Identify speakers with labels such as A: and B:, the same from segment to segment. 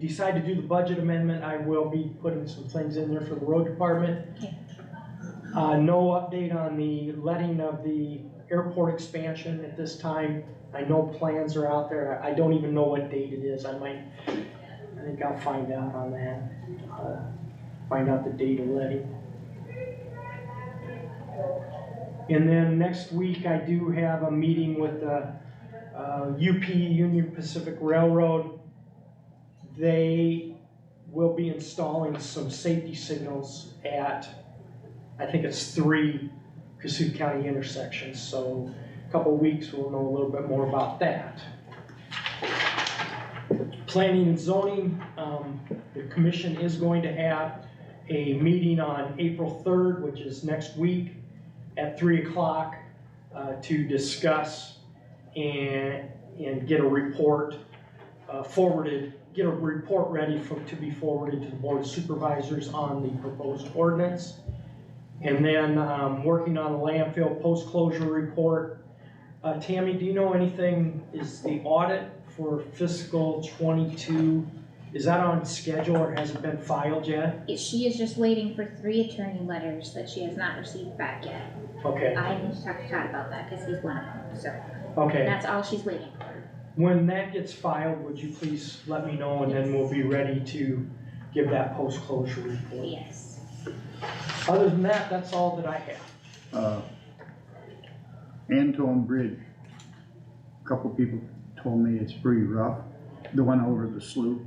A: decide to do the budget amendment, I will be putting some things in there for the road department.
B: Okay.
A: Uh, no update on the letting of the airport expansion at this time. I know plans are out there. I don't even know what date it is. I might, I think I'll find out on that. Uh, Find out the date of letting. And then next week, I do have a meeting with the uh, UP, Union Pacific Railroad. They will be installing some safety signals at, I think it's three Cassup County intersections. So a couple weeks, we'll know a little bit more about that. Planning and zoning, um, the commission is going to have a meeting on April 3rd, which is next week at three o'clock uh, to discuss and, and get a report uh, forwarded, get a report ready for, to be forwarded to the board of supervisors on the proposed ordinance. And then, um, working on the landfill post-closure report. Uh, Tammy, do you know anything, is the audit for fiscal twenty-two, is that on schedule or has it been filed yet?
B: She is just waiting for three attorney letters that she has not received back yet.
A: Okay,
B: I need to talk to Todd about that, cause he's one of them, so
A: okay.
B: that's all she's waiting for.
A: When that gets filed, would you please let me know, and then we'll be ready to give that post-closure report.
B: Yes.
A: Other than that, that's all that I have.
C: uh, Anton Bridge. a Couple people told me it's pretty rough, the one over the sloop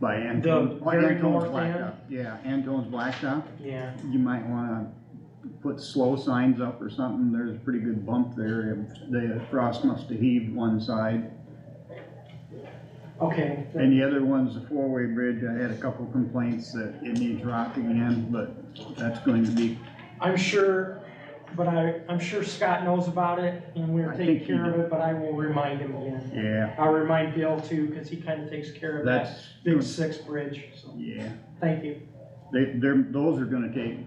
C: by Anton.
A: The
C: oh,
A: very
C: Anton's
A: north
C: Blacktop. Yeah, Anton's Blacktop,
A: Yeah,
C: you might wanna put slow signs up or something, there's a pretty good bump there, the frost must have heaved one side.
A: okay.
C: And the other one's the four-way bridge, I had a couple complaints that it needs rock again, but that's going to be,
A: I'm sure, but I, I'm sure Scott knows about it, and we're
C: I
A: taking
C: think he
A: care of it, but I will remind him again.
C: yeah,
A: I'll remind Bill too, because he kind of takes care of that
C: that's,
A: big six bridge, so,
C: yeah.
A: thank you.
C: They, they're, those are gonna take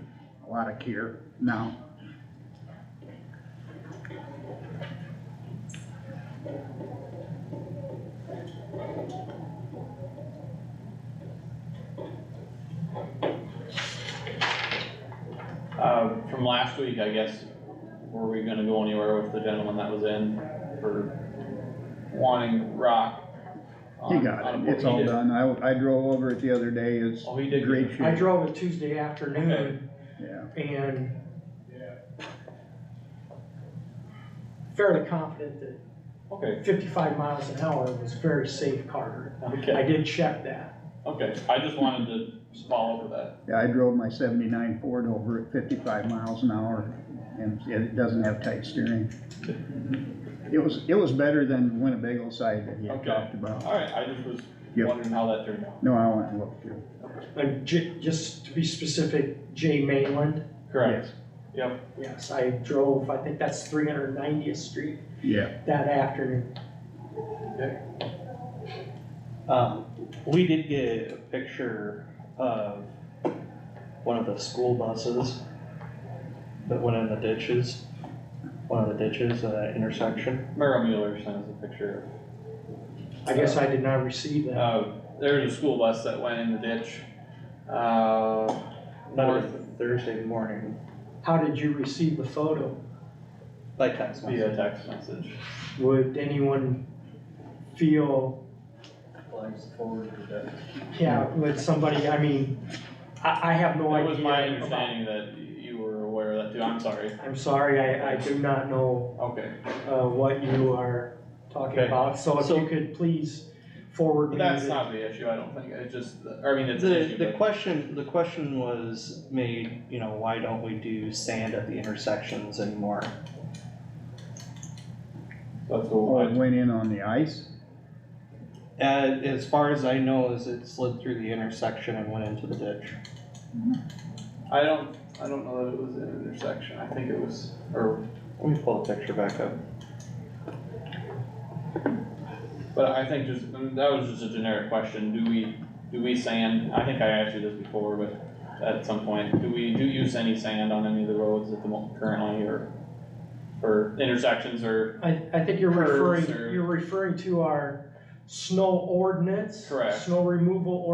C: a lot of care now.
D: Uh, from last week, I guess, were we gonna go anywhere with the gentleman that was in for wanting rock?
C: He
D: on-
C: got it,
D: on a-
C: Um, it's
D: he
C: all
D: did-
C: done, I, I drove over it the other day, it's
D: Oh, he did.
C: great
A: I
C: shape,
A: drove it Tuesday afternoon,
C: yeah.
A: and fairly confident that
D: Okay,
A: fifty-five miles an hour was very safe, Carter. I
D: okay,
A: did check that.
D: okay, I just wanted to follow over that.
C: Yeah, I drove my seventy-nine Ford over at fifty-five miles an hour, and it doesn't have tight steering. It was, it was better than Winnebago side that you had
D: Okay.
C: talked about,
D: Alright, I just was
C: Yeah.
D: wondering how that turned out.
C: no, I went and looked through.
A: And Uh, J, just to be specific, Jay Mainland,
D: Correct,
C: Yes.
D: yep,
A: yes, I drove, I think that's three hundred ninetieth street
C: Yeah,
A: that afternoon.
E: Um, we did get a picture of one of the school buses that went in the ditches, one of the ditches at that intersection.
D: Merrill Mueller sent us a picture.
A: I guess I did not receive that.
D: Uh, there was a school bus that went in the ditch, uh, north
E: North Thursday morning,
A: How did you receive the photo?
E: like text message.
D: via text message.
A: Would anyone feel, yeah, would somebody, I mean, I, I have no
D: It
A: idea.
D: was my
A: about-
D: understanding that you were aware of that too, I'm sorry,
A: I'm sorry, I, I do not know,
D: okay.
A: uh, what you are talking
D: Okay.
A: about, so if
E: So-
A: you could please forward me.
D: That's
A: the-
D: not the issue, I don't think, it's just, I mean, it's an
E: The, the
D: issue, but,
E: question, the question was made, you know, why don't we do sand at the intersections anymore?
D: that's
C: oh, it
D: cool.
C: went in on the ice,
E: And as far as I know, is it slid through the intersection and went into the ditch.
D: I don't, I don't know that it was an intersection, I think it was, or,
E: Let me pull the picture back up.
D: but I think just, I mean, that was just a generic question, do we, do we sand, I think I asked you this before, but at some point, do we, do use any sand on any of the roads at the moment currently, or, or intersections, or,
A: I, I think you're
D: Curves
A: referring,
D: or-
A: you're referring to our snow ordinance.
D: Correct.
A: Snow removal